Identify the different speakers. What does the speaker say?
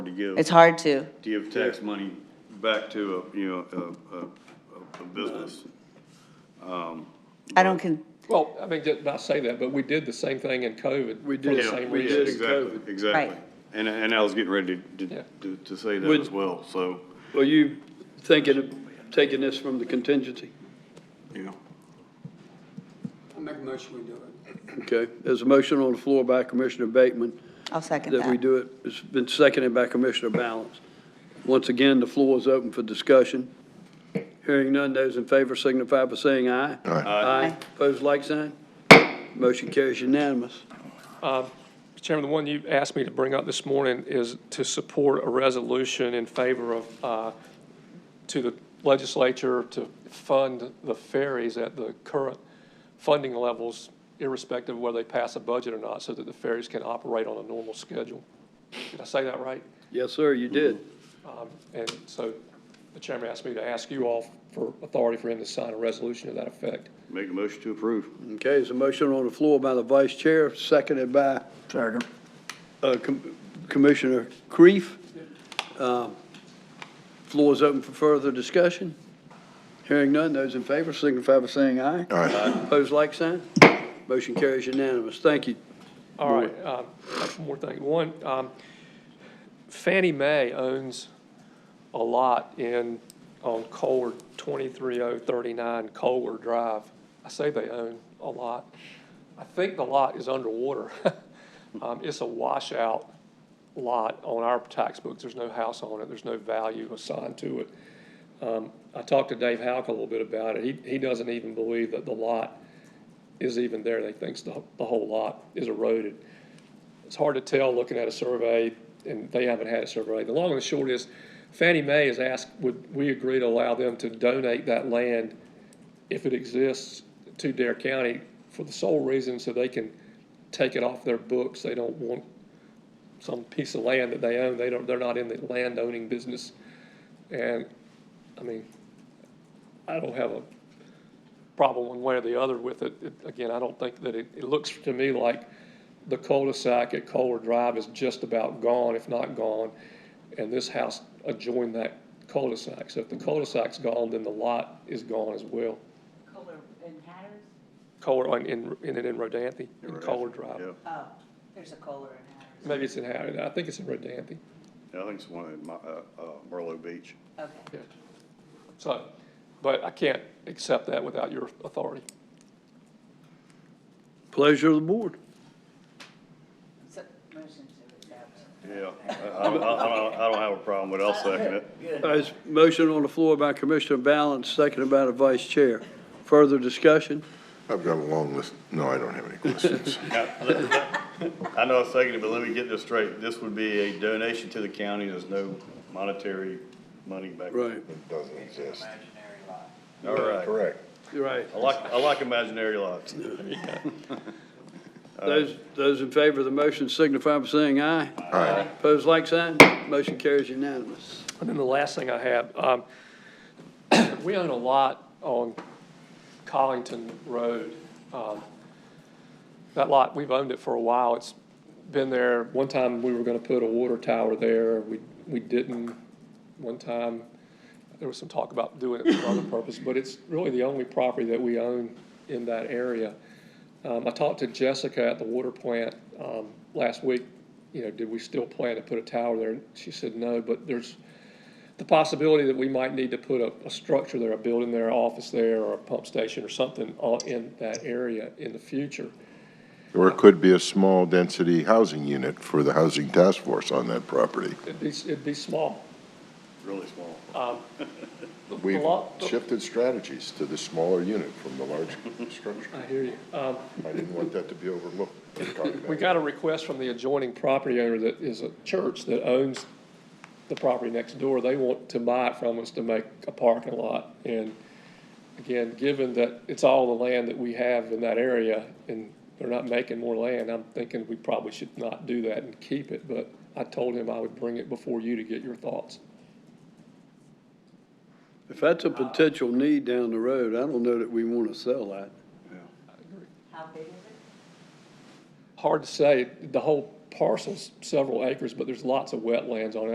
Speaker 1: to give,
Speaker 2: It's hard to.
Speaker 1: give tax money back to a, you know, a, a, a- a business.
Speaker 2: I don't con,
Speaker 3: Well, I mean, just not say that, but we did the same thing in COVID.
Speaker 4: We
Speaker 3: for the
Speaker 4: did.
Speaker 3: same
Speaker 4: We
Speaker 3: reason.
Speaker 4: did. COVID.
Speaker 1: Exactly, exactly.
Speaker 2: Right.
Speaker 1: And, and I was getting ready to-
Speaker 3: Yeah.
Speaker 1: to, to, to say that
Speaker 4: Would-
Speaker 1: as well, so,
Speaker 4: Well, you thinking of taking this from the contingency?
Speaker 1: you know.
Speaker 5: I make a motion, we do it.
Speaker 4: Okay, there's a motion on the floor by Commissioner Bateman
Speaker 2: I'll second
Speaker 4: that we
Speaker 2: that.
Speaker 4: do it. It's been seconded by Commissioner Balance. Once again, the floor is open for discussion. Hearing none, those in favor signify by saying aye. Aye. Opposed, like sign. Motion carries unanimous.
Speaker 3: Mr. Chairman, the one you asked me to bring up this morning is to support a resolution in favor of, uh, to the legislature to fund the ferries at the current funding levels, irrespective of whether they pass a budget or not, so that the ferries can operate on a normal schedule. Did I say that right?
Speaker 4: Yes, sir, you did.
Speaker 3: Um, And so the chairman asked me to ask you all for authority for him to sign a resolution to that effect.
Speaker 1: Make a motion to approve.
Speaker 4: Okay, there's a motion on the floor by the vice chair, seconded by
Speaker 6: Second.
Speaker 4: uh, Com- Commissioner Kreef. Um, Floor is open for further discussion. Hearing none, those in favor signify by saying aye.
Speaker 6: Aye.
Speaker 4: Opposed, like sign. Motion carries unanimous. Thank you.
Speaker 3: All right, um, one more thing. One, um, Fannie Mae owns a lot in, on Colward, 23039 Colward Drive. I say they own a lot. I think the lot is underwater. Um, It's a washout lot on our tax books. There's no house on it. There's no value assigned to it. Um, I talked to Dave Houck a little bit about it. He, he doesn't even believe that the lot is even there. They thinks the, the whole lot is eroded. It's hard to tell looking at a survey, and they haven't had a survey. The long and the short is Fannie Mae has asked, would we agree to allow them to donate that land if it exists to Dare County for the sole reason so they can take it off their books. They don't want some piece of land that they own. They don't, they're not in the land owning business. And, I mean, I don't have a problem one way or the other with it. It- Again, I don't think that it, it looks to me like the cul-de-sac at Kohler Drive is just about gone, if not gone, and this house adjoined that cul-de-sac. So if the cul-de-sac's gone, then the lot is gone as well.
Speaker 7: Color and Hatters?
Speaker 3: Kohler, in, in, in, in Rodanthe, in Kohler Drive.
Speaker 1: Yeah,
Speaker 7: Oh, there's a Kohler and Hatters.
Speaker 3: Maybe it's in Howard, I think it's in Rodanthe.
Speaker 1: I think it's one in my, uh, uh, Merlot Beach.
Speaker 7: Okay.
Speaker 3: So, but I can't accept that without your authority.
Speaker 4: Pleasure of the board.
Speaker 7: So, motion to adopt.
Speaker 1: Yeah, I, I, I, don't- I don't have a problem with it, I'll second it.
Speaker 4: There's a motion on the floor by Commissioner Balance, seconded by the vice chair. Further discussion?
Speaker 6: I've got a long list. No, I don't have any questions.
Speaker 1: I know I seconded, it, but let me get this straight. This would be a donation to the county. There's no monetary money back.
Speaker 4: Right,
Speaker 6: It doesn't exist.
Speaker 1: All right.
Speaker 6: Correct.
Speaker 4: right.
Speaker 1: I like, I like imaginary lots.
Speaker 4: Those, those in favor of the motion signify by saying aye.
Speaker 6: Aye.
Speaker 4: Opposed, like sign. Motion carries unanimous.
Speaker 3: And then the last thing I have, um, we own a lot on Collington Road. Um, That lot, we've owned it for a while. It's been there. One time, we were gonna put a water tower there. We, we didn't. One time, there was some talk about doing it for other purpose, but it's really the only property that we own in that area. Um, I talked to Jessica at the water plant, um, last week, you know, did we still plan to put a tower there? And She said no, but there's the possibility that we might need to put a, a structure there, a building there, an office there, or a pump station or something on, in that area in the future.
Speaker 6: Or it could be a small density housing unit for the housing task force on that property.
Speaker 3: It'd be, it'd be small.
Speaker 1: Really small.
Speaker 3: The- the
Speaker 6: We've
Speaker 3: lot- the-
Speaker 6: shifted strategies to the smaller unit from the large structure.
Speaker 3: I hear you. Um,
Speaker 6: I didn't want that to be overlooked.
Speaker 3: we got a request from the adjoining property owner that is a church that owns the property next door. They want to buy it from us to make a parking lot. And again, given that it's all the land that we have in that area and they're not making more land, I'm thinking we probably should not do that and keep it. But I told him I would bring it before you to get your thoughts.
Speaker 4: If that's a potential need down the road, I don't know that we want to sell that.
Speaker 7: How big is it?
Speaker 3: Hard to say, the whole parcel's several acres, but there's lots of wetlands on it.